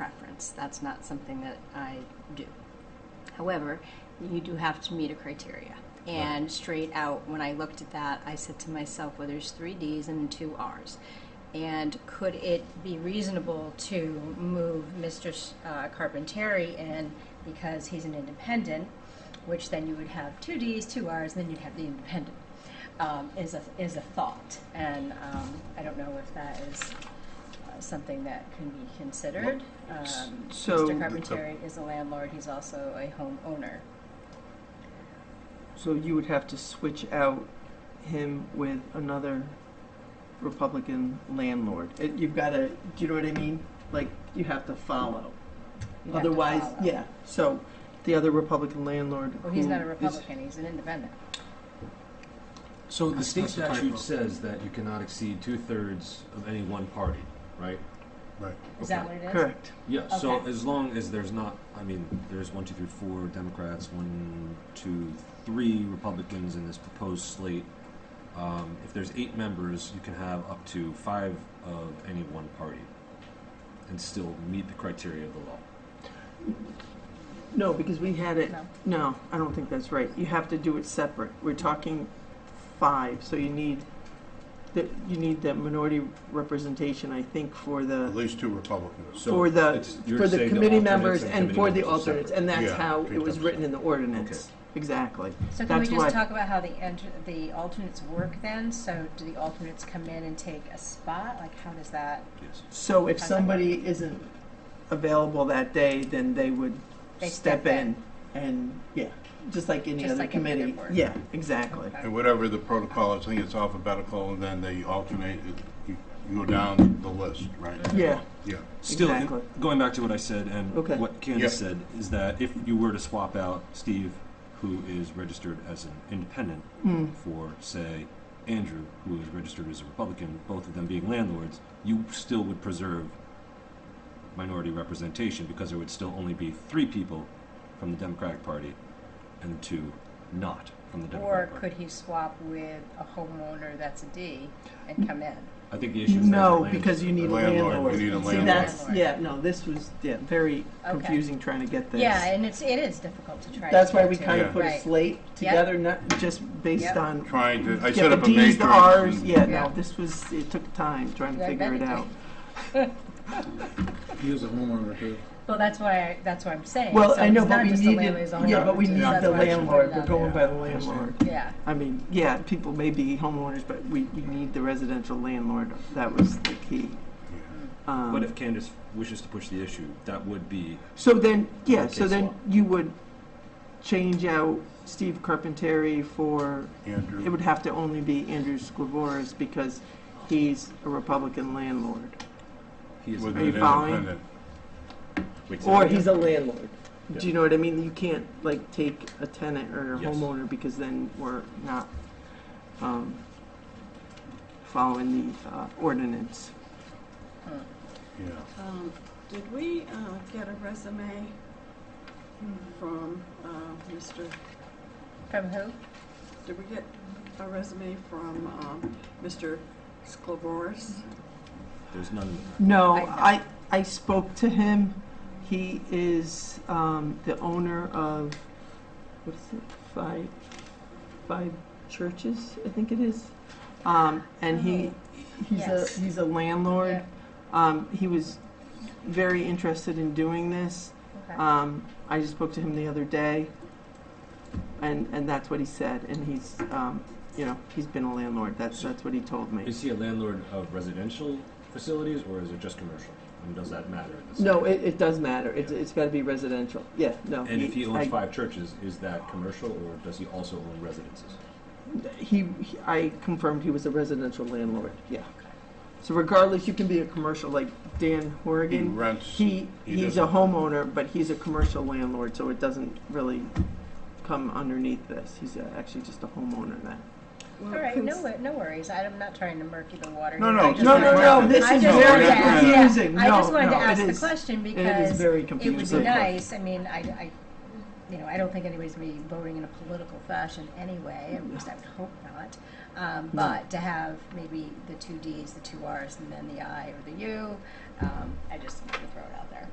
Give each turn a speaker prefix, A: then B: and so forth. A: that's, that's not something that I do. However, you do have to meet a criteria. And straight out, when I looked at that, I said to myself, well, there's three Ds and two Rs. And could it be reasonable to move Mr. S- uh, Carpenteri in because he's an independent, which then you would have two Ds, two Rs, and then you'd have the independent, um, is, a, is a thought. And um, I don't know if that is uh, something that can be considered. Um,
B: so- uh,
A: Mr. Carpenteri is a landlord, he's also a homeowner.
B: So you would have to switch out him with another Republican landlord. It, you've got to, do you know what I mean? Like, you have to follow.
A: You'd have to
B: Otherwise,
A: follow.
B: yeah. So the other Republican landlord.
A: Well, he's
B: who
A: not a
B: is-
A: Republican, he's an independent.
C: So the state
D: That's the type
C: statute
D: of-
C: says that you cannot exceed two-thirds of any one party, right?
D: Right.
A: Is that
C: Okay.
A: what it is?
B: Correct.
C: Yeah, so
A: Okay.
C: as long as there's not, I mean, there's one, two, three, four Democrats, one, two, three Republicans in this proposed slate. Um, if there's eight members, you can have up to five of any one party and still meet the criteria of the law.
B: No, because we had it.
A: No.
B: No, I don't think that's right. You have to do it separate. We're talking five, so you need the, you need the minority representation, I think, for
D: At
B: the
D: least two Republicans.
C: So
B: for the
C: it's- you're
B: for the
C: saying
B: committee
C: alternates
B: members and
C: committee
B: for the
C: members are
B: alternates,
C: separate.
B: and that's
D: Yeah,
B: how it was
D: 3%.
B: written in the ordinance. Exactly.
A: So can we
B: That's why-
A: just talk about how the enter, the alternates work then? So do the alternates come in and take a spot? Like, how does that,
C: Yes.
B: So if somebody isn't available that day, then they would
A: They
B: step
A: step in.
B: in and, yeah, just like any
A: Just
B: other
A: like any other
B: committee.
A: board.
B: Yeah, exactly.
A: Okay.
D: And whatever the protocol, is, I think it's alphabetical, and then they alternate, it. you you go down the list, right?
B: Yeah,
D: Yeah.
C: Still, in-
B: Exactly.
C: going back to what I said and
B: Okay.
C: what Candace
D: Yeah.
C: said, is that if you were to swap out Steve, who is registered as an independent,
B: Mm.
C: for, say, Andrew, who is registered as a Republican, both of them being landlords, you still would preserve minority representation because there would still only be three people from the Democratic Party and two not from the
A: or
C: Democratic
A: could
C: Party.
A: he swap with a homeowner that's a D
B: Mm,
A: and come in?
C: I think the issue is
B: No,
C: that
B: because you need a
D: Landlord,
B: landlord.
D: we need a
B: See,
D: landlord.
B: that's,
A: Landlord.
B: yeah, no, this was, yeah, very
A: Okay.
B: confusing trying to get this.
A: Yeah, and it's, it is difficult to try to.
B: That's why
A: get
B: we
A: to.
B: kind of
D: Yeah.
B: put a
A: Right.
B: slate together, not just based
A: Yep.
B: on,
D: Trying to, I
B: yeah,
D: set
B: the
D: up a
B: Ds,
D: matrix.
B: the Rs,
D: and-
B: yeah,
A: Yeah.
B: no, this was, it took time trying to
A: Yeah, I
B: figure
A: bet
B: it
A: it
B: out.
A: did.
E: He is a homeowner too.
A: Well, that's why, I- that's what I'm saying.
B: Well,
A: So
B: I know,
A: it's
B: but
A: not
B: we
A: just the
B: need,
A: landlord's own
B: yeah, but we
A: property,
B: need
A: that's
B: the
A: why I should put
B: landlord,
A: it
B: we're
A: out
B: going by the
E: I understand.
B: landlord.
A: there. Yeah,
B: I mean, yeah, people may be homeowners, but we, we need the residential landlord. That was the key. Um,
C: But if Candace wishes to push the issue, that would be
B: so then, yeah, so
C: Case
B: then
C: law.
B: you would change out Steve Carpenteri for, it
D: Andrew,
B: would have to only be Andrew Sklavoris because he's a Republican landlord.
C: he is
D: with
B: Are you
D: an
B: following?
D: independent.
C: Wait,
B: Or
C: say that
B: he's a landlord. Do
C: Yeah.
B: you know what I mean? You can't like take a tenant or a
C: Yes.
B: homeowner because then we're not um, following the uh, ordinance.
D: Yeah.
F: Um, Did we uh, get a resume from uh, Mr.,
A: from who?
F: did we get a resume from um, Mr. Sclevoris?
C: again. There's none in the packet.
B: No,
A: I
B: I, I spoke to him. He is um, the owner of, what is it, five, five churches, I think it is. Um, and he, he's a,
A: Yes.
B: he's a landlord.
A: Yeah.
B: Um, he was very interested in doing this.
A: Okay.
B: Um, I just spoke to him the other day, and, and that's what he said. And he's, um, you know, he's been a landlord. That's, that's what he told me.
C: Is he a landlord of residential facilities or is it just commercial? And does that matter? at this
B: No,
C: point?
B: it, it does matter. It's, it's gotta be residential. Yeah, no.
C: And if he owns
B: I-
C: five churches, is that commercial or does he also own residences?
B: He, he- I confirmed he was a residential landlord, yeah. So regardless, you can be a commercial, like Dan
D: He
B: Horrigan,
D: rents,
B: he,
D: he
B: he's a
D: doesn't-
B: homeowner, but he's a commercial landlord, so it doesn't really come underneath this. He's uh, actually just a homeowner now.
A: All right, no, wor- no worries. I'm not trying to murky the water.
D: No,
A: here.
D: no,
A: I just
D: no,
A: wanted-
D: no, no,
B: this
A: I
B: is
A: just
D: very
A: wanted to ask- yeah,
B: confusing.
A: I just
B: No,
A: wanted to
B: no, it
A: ask the
B: is-
A: question
B: It is
A: because
B: very
A: it would be
B: confusing.
A: nice. I mean, I, I, you know, I don't think anybody's gonna be voting in a political fashion anyway, at least I would hope not. Um, but to have maybe the two Ds, the two Rs, and then the I or the U, um, I just wanted to throw it out there.